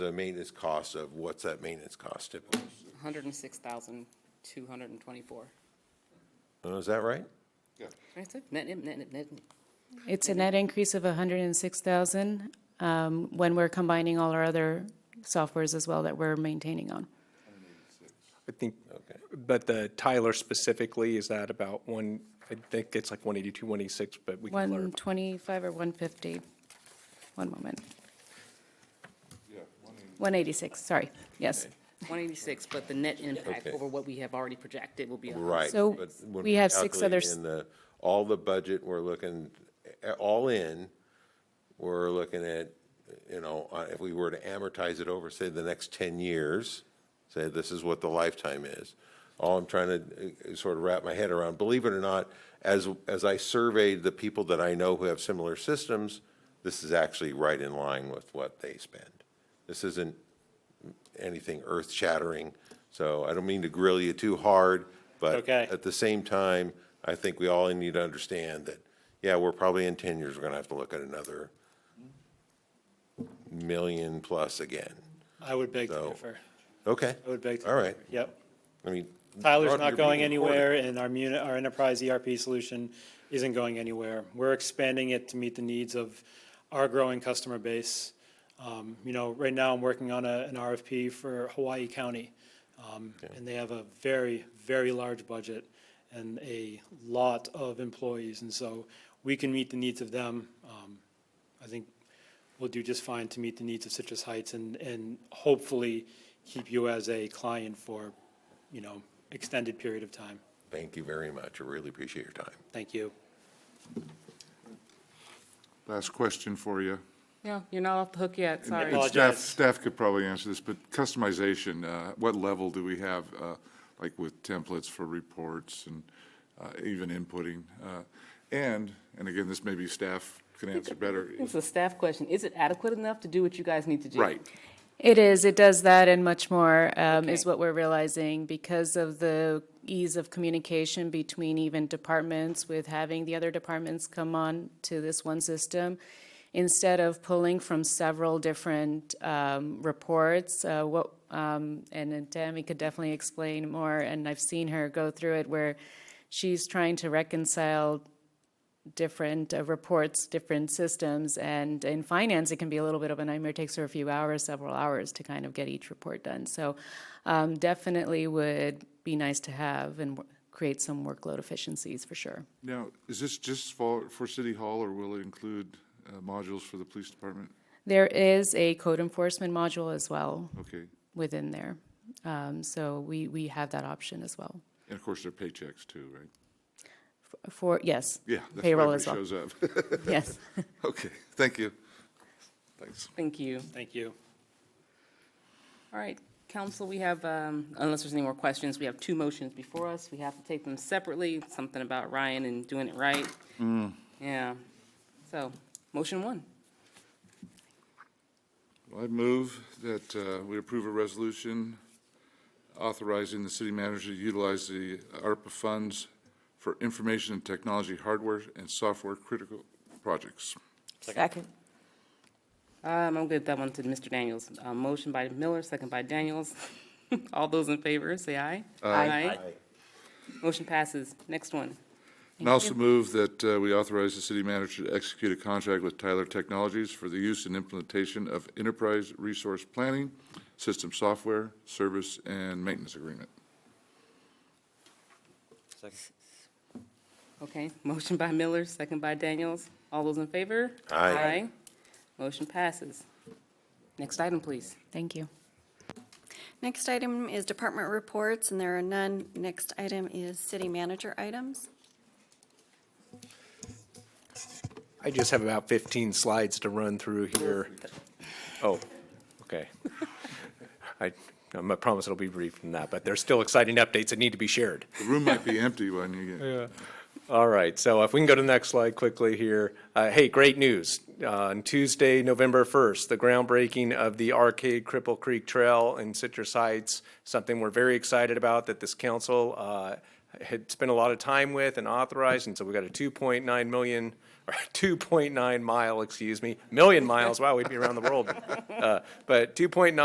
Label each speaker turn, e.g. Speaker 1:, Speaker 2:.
Speaker 1: the maintenance cost of, what's that maintenance cost typically?
Speaker 2: hundred and six thousand, two hundred and twenty-four.
Speaker 1: Uh, Is that right?
Speaker 2: That's it, net, net, net, net.
Speaker 3: It's a net increase of 106,000 um, when we're combining all our other softwares as well that we're maintaining on.
Speaker 4: I think, but the Tyler specifically, is that about one, I think it's like one eighty-two, one eighty-six, but we can clarify.
Speaker 3: 125 or 150? One moment. 186, sorry, yes.
Speaker 2: One eighty-six, but the net impact
Speaker 1: Okay.
Speaker 2: over what we have already projected will be. a-
Speaker 1: Right.
Speaker 3: So
Speaker 1: but when
Speaker 3: we
Speaker 1: we
Speaker 3: have six
Speaker 1: calculate
Speaker 3: others-
Speaker 1: In the, all the budget, we're looking, eh, all in, we're looking at, you know, uh, if we were to amortize it over, say, the next 10 years, say, this is what the lifetime is. All I'm trying to eh, eh, sort of wrap my head around, believe it or not, as, as I surveyed the people that I know who have similar systems, this is actually right in line with what they spend. This isn't anything earth-shattering, so I don't mean to grill you too hard, but
Speaker 5: Okay.
Speaker 1: at the same time, I think we all need to understand that, yeah, we're probably in ten years, we're gonna have to look at another million plus again.
Speaker 5: I would beg to
Speaker 1: So-
Speaker 5: differ.
Speaker 1: Okay.
Speaker 5: I would beg to.
Speaker 1: All right,
Speaker 5: differ. Yep.
Speaker 1: I mean.
Speaker 5: Tyler's
Speaker 1: Rod, you're
Speaker 5: not going
Speaker 1: being recorded.
Speaker 5: anywhere, and our muni, our enterprise ERP solution isn't going anywhere. We're expanding it to meet the needs of our growing customer base. Um, you know, right now, I'm working on a, an RFP for Hawaii County. Um, and they have a very, very large budget and a lot of employees, and so we can meet the needs of them. Um, I think we'll do just fine to meet the needs of Citrus Heights and, and hopefully keep you as a client for, you know, extended period of time.
Speaker 1: Thank you very much, I really appreciate your time.
Speaker 5: Thank you.
Speaker 6: Last question for you.
Speaker 2: No, you're not off the hook yet,
Speaker 6: And-
Speaker 2: sorry.
Speaker 6: and Staff,
Speaker 5: Apologize.
Speaker 6: staff could probably answer this, but customization, uh, what level do we have, uh, like with templates for reports and uh, even inputting? Uh, And, and again, this maybe staff can answer better.
Speaker 2: It's a staff question. Is it adequate enough to do what you guys need to do?
Speaker 6: Right.
Speaker 3: It is, it does that and much more, um, is
Speaker 2: Okay.
Speaker 3: what we're realizing because of the ease of communication between even departments with having the other departments come on to this one system. Instead of pulling from several different, um, reports, uh, what, um, and then Tammy could definitely explain more, and I've seen her go through it where she's trying to reconcile different uh, reports, different systems, and in finance, it can be a little bit of a nightmare. It takes her a few hours, several hours to kind of get each report done. So um, definitely would be nice to have and w- create some workload efficiencies for sure.
Speaker 6: Now, is this just for, for City Hall, or will it include uh, modules for the police department?
Speaker 3: There is a code enforcement module as well
Speaker 6: Okay.
Speaker 3: within there. Um, So we, we have that option as well.
Speaker 6: And of course, their paychecks too, right?
Speaker 3: For, yes.
Speaker 6: Yeah. that's why
Speaker 3: Payroll as well,
Speaker 6: everybody Shows up.
Speaker 3: yes.
Speaker 6: Okay, thank you. Thanks.
Speaker 2: Thank you.
Speaker 5: Thank you.
Speaker 2: All right, council, we have, um, unless there's any more questions, we have two motions before us. We have to take them separately, something about Ryan and doing it right.
Speaker 1: Mm.
Speaker 2: Yeah. So, motion one.
Speaker 6: Well, I move that uh, we approve a resolution authorizing the city manager to utilize the ARPA funds for information and technology hardware and software critical projects.
Speaker 7: Second.
Speaker 2: Um, I'll give that one to Mr. Daniels. Uh, motion by Miller, second by Daniels. All those in favor, say aye. Aye. Motion passes. Next one.
Speaker 6: And also move that uh, we authorize the city manager to execute a contract with Tyler Technologies for the use and implementation of enterprise resource planning, system software, service, and maintenance agreement.
Speaker 2: Okay, motion by Miller, second by Daniels. All those in favor?
Speaker 1: Aye.
Speaker 2: Motion passes. Next item, please.
Speaker 3: Thank you.
Speaker 7: Next item is department reports, and there are none. Next item is city manager items.
Speaker 4: I just have about 15 slides to run through here. Oh, okay. I, I promise it'll be brief than that, but there's still exciting updates that need to be shared.
Speaker 6: The room might be empty when you get.
Speaker 4: All right, so if we can go to the next slide quickly here. Uh, hey, great news. Uh, on Tuesday, November 1st, the groundbreaking of the Arcade Cripple Creek Trail in Citrus Heights, something we're very excited about that this council uh, had spent a lot of time with and authorized. And so we got a $2.9 million or 2.9 mile, excuse me, million miles, wow, we'd be around the world. Uh, But 2.9